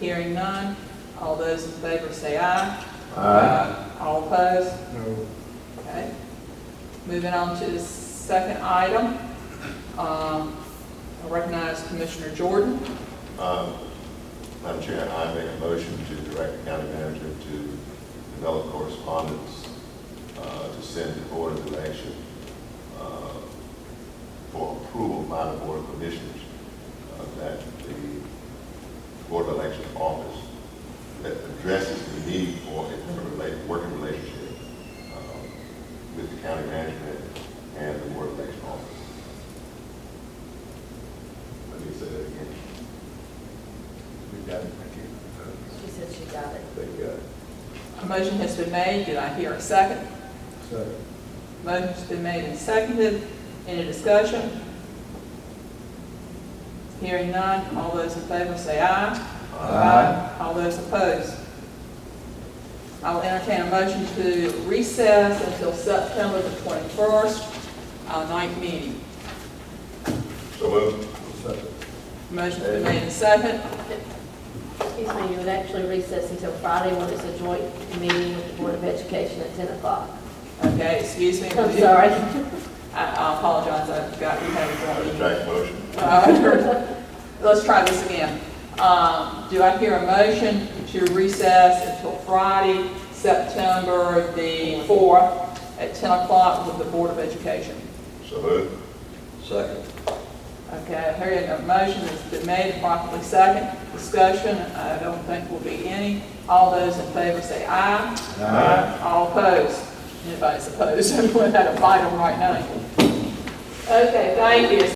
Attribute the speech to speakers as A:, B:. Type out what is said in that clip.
A: Hearing none, all those in favor say aye. Uh,
B: Aye.
A: All opposed?
C: No.
A: Okay. Moving on to the second item, um, I recognize Commissioner Jordan.
D: Um, Madam Chair, I make a motion to direct the county manager to develop correspondence uh, to send to Board of Direction uh, for approval by the Board of Commissioners uh, that the Board of Election Office that addresses the need for a relate- working relationship um, with the county management and the Board of Election Office. Let me say that again. We got it, thank
E: She said she got it.
D: you. They got it.
A: A motion has been made, did I hear a second?
C: Second.
A: Motion's been made and seconded, any discussion? Hearing none, all those in favor say aye. All those opposed? I'll entertain a motion to recess until September the 21st, our ninth meeting.
D: So moved.
C: Second.
A: Motion's been made and seconded,
E: Excuse me, you would actually recess until Friday when it's a joint meeting with the Board of Education at 10 o'clock.
A: Okay, excuse me.
E: I'm sorry.
A: I I apologize, I forgot we had a joint meeting.
D: Retract motion.
A: Uh, Let's try this again. Um, Do I hear a motion to recess until Friday, September the 4th, at 10 o'clock with the Board of Education?
D: So moved.
B: Second.
A: Okay, hearing a motion that's been made, properly second, discussion, I don't think will be any. All those in favor say aye.
B: Aye.
A: All opposed? Anybody's opposed, we're at a vital right now. Okay, thank you.